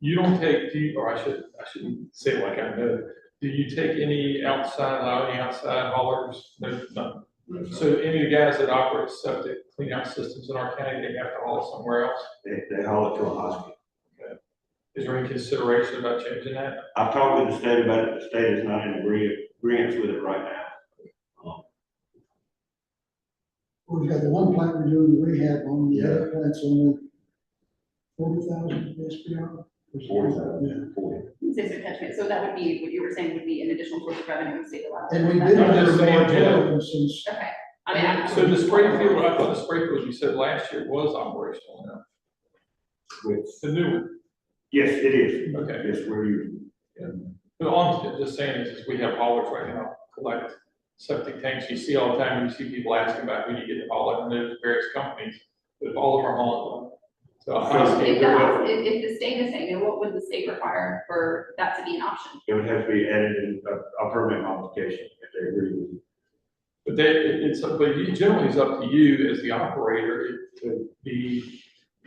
You don't take, do you, or I should, I shouldn't say it like I know, do you take any outside, allow any outside haulers? No, none. So any of the guys that operate septic clean out systems in our county, they have to haul it somewhere else? They, they haul it to a hospital. Is there any consideration about changing that? I've talked with the state about it, the state is not in agree- agreeance with it right now. We've got the one plant we're doing the rehab on, the other plant's only forty thousand SPR. Forty thousand, forty. Six attachment, so that would be, what you were saying would be an additional source of revenue in state allowed. And we've been I'm under just saying, moratorium since, Okay, I mean, I'm. So the Springfield, I thought the Springfield, you said last year was operational now. Which- The new one, Yes, it is. okay. Yes, we're using. But all I'm just saying is, is we have haulers right now, collect septic tanks, you see all the time, you see people asking about who you get to haul it, and there's various companies, but all of them are hauling them. So I'm asking, If that's, if, if the state is saying, then what would the state require for that to be an option? It would have to be added in a, a permit modification if they agree with it. but they, it- it's, but you- generally it's up to you as the operator to be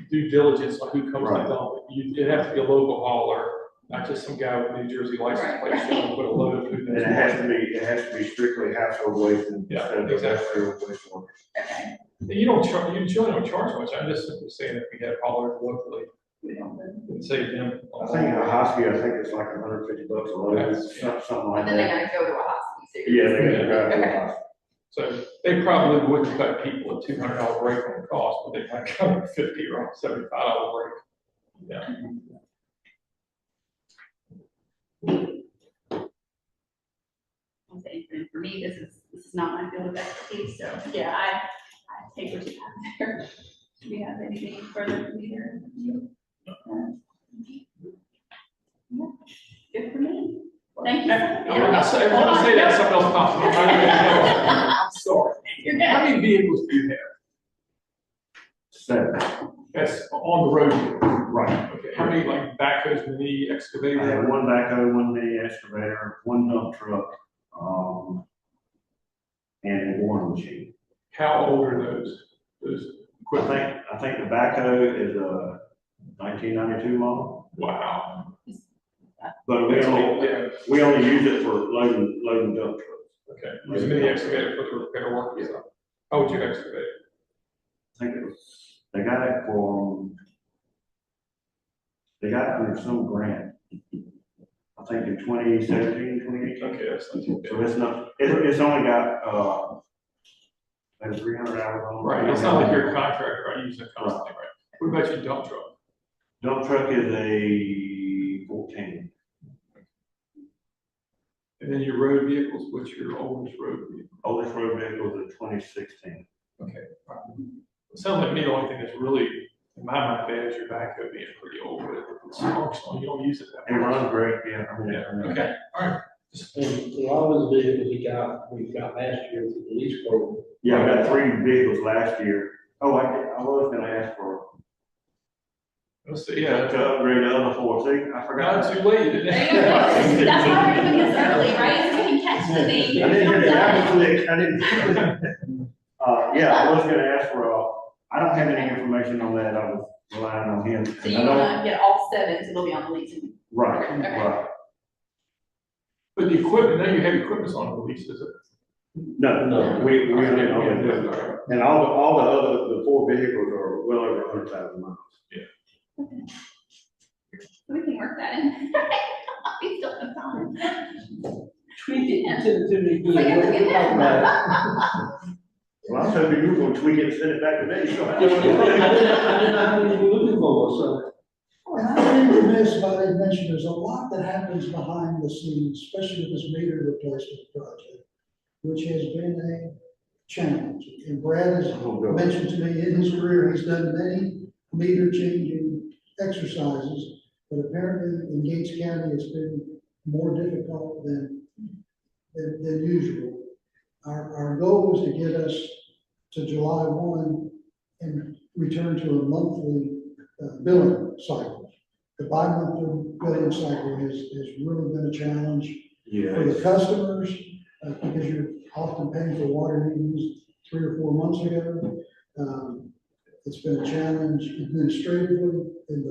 due diligence on who comes to Right. dump. You, it'd have to be a local hauler, not just some guy with a New Jersey license Right, plate showing up with a load of food. in And his it has to be, it has to be strictly household waste and Yeah, instead of exactly. industrial wastewater. Okay. You don't charge, you generally don't charge much, I'm just simply saying if we had haulers locally, we don't then. it would save them. I think in a hospital, I think it's like hundred fifty bucks a load, some- something like But then they that. gotta go to a hospital, so. Yeah, they gotta drive to a Okay. hospital. So they probably wouldn't cut people a two hundred dollar break on the cost, but they might cut a fifty or seventy five dollar break. Yeah, I'll say, and For me, this is, this is not my field of expertise, so, yeah, I, I take what you have there. Do we have anything further from either? of you? Yeah, Good for me. Thank you. And when I say, when I say that, something else pops in my mind. I'm sorry. You're good. How many vehicles do you have Seven, that's on the road? right. Okay, how many like backhoes, mini I have excavator? one backhoe, one mini excavator, one dump truck, um, and a boring machine. How old are those? Those, I think, I think the backhoe is a nineteen ninety-two model, wow. but we That's only, old, yeah, we only use it for loading, loading dump trucks. okay. Use a mini excavator for the repair work, yeah. How would you excavate? I think it was, they got it from, they got it from some grant. I think in 2017, 2018. Okay, that's not too bad. So it's not, it, it's only got, uh, like three hundred hours on it. Right, it's not like you're a contractor, I use it constantly, right? What about your dump truck? Dump truck is a fourteen, And then your road vehicles, what's your oldest road vehicle? oldest road vehicle is a twenty sixteen. It sounds like me, the only thing that's really, in my mind, bad is your backhoe being pretty old, but it's functional, you don't use it It that much. runs great, yeah. I mean, I mean- Yeah, okay, all right. Just- And a lot of the vehicles we got, we got last year through the lease program. Yeah, I got three vehicles last year. Oh, I, I was gonna ask for, Let's see, to yeah. upgrade the other four, see, I Not forgot. too late. isn't There you go. it? That's why we're doing this early, right? So we can catch the I thing. didn't hear the apple click, I didn't. Uh, yeah, I was gonna ask for, uh, I don't have any information on that, I was relying on him. So and you I don't. wanna get all seven, so they'll be on the lease. Right, Okay. right. But the equipment, now you have equipment on the lease, is it? No, no, we, we don't know. And all, the all the other, the four vehicles are well over a hundred thousand miles. We can work that in. We still have time. Tweak it, you send it to me, good, Look at- what look you at talking about? Well, I'm hoping you're gonna tweak it and send it back to me, so. I didn't, I didn't, I didn't even looking for, so. and I remember this, but I didn't mention, there's a lot that happens behind the scenes, especially with this meter replacement project, which has been a challenge. And Brad has Oh, God. mentioned to me in his career, he's done many meter changing exercises, but apparently in Gates County, it's been more difficult than, than, than usual. Our, our goal was to get us to July one and return to a monthly uh, billing cycle. The bi-monthly billing cycle has, has really been a challenge for Yeah. the customers, uh, because you're often paying for water you used three or four months ago. Um, It's been a challenge administratively in the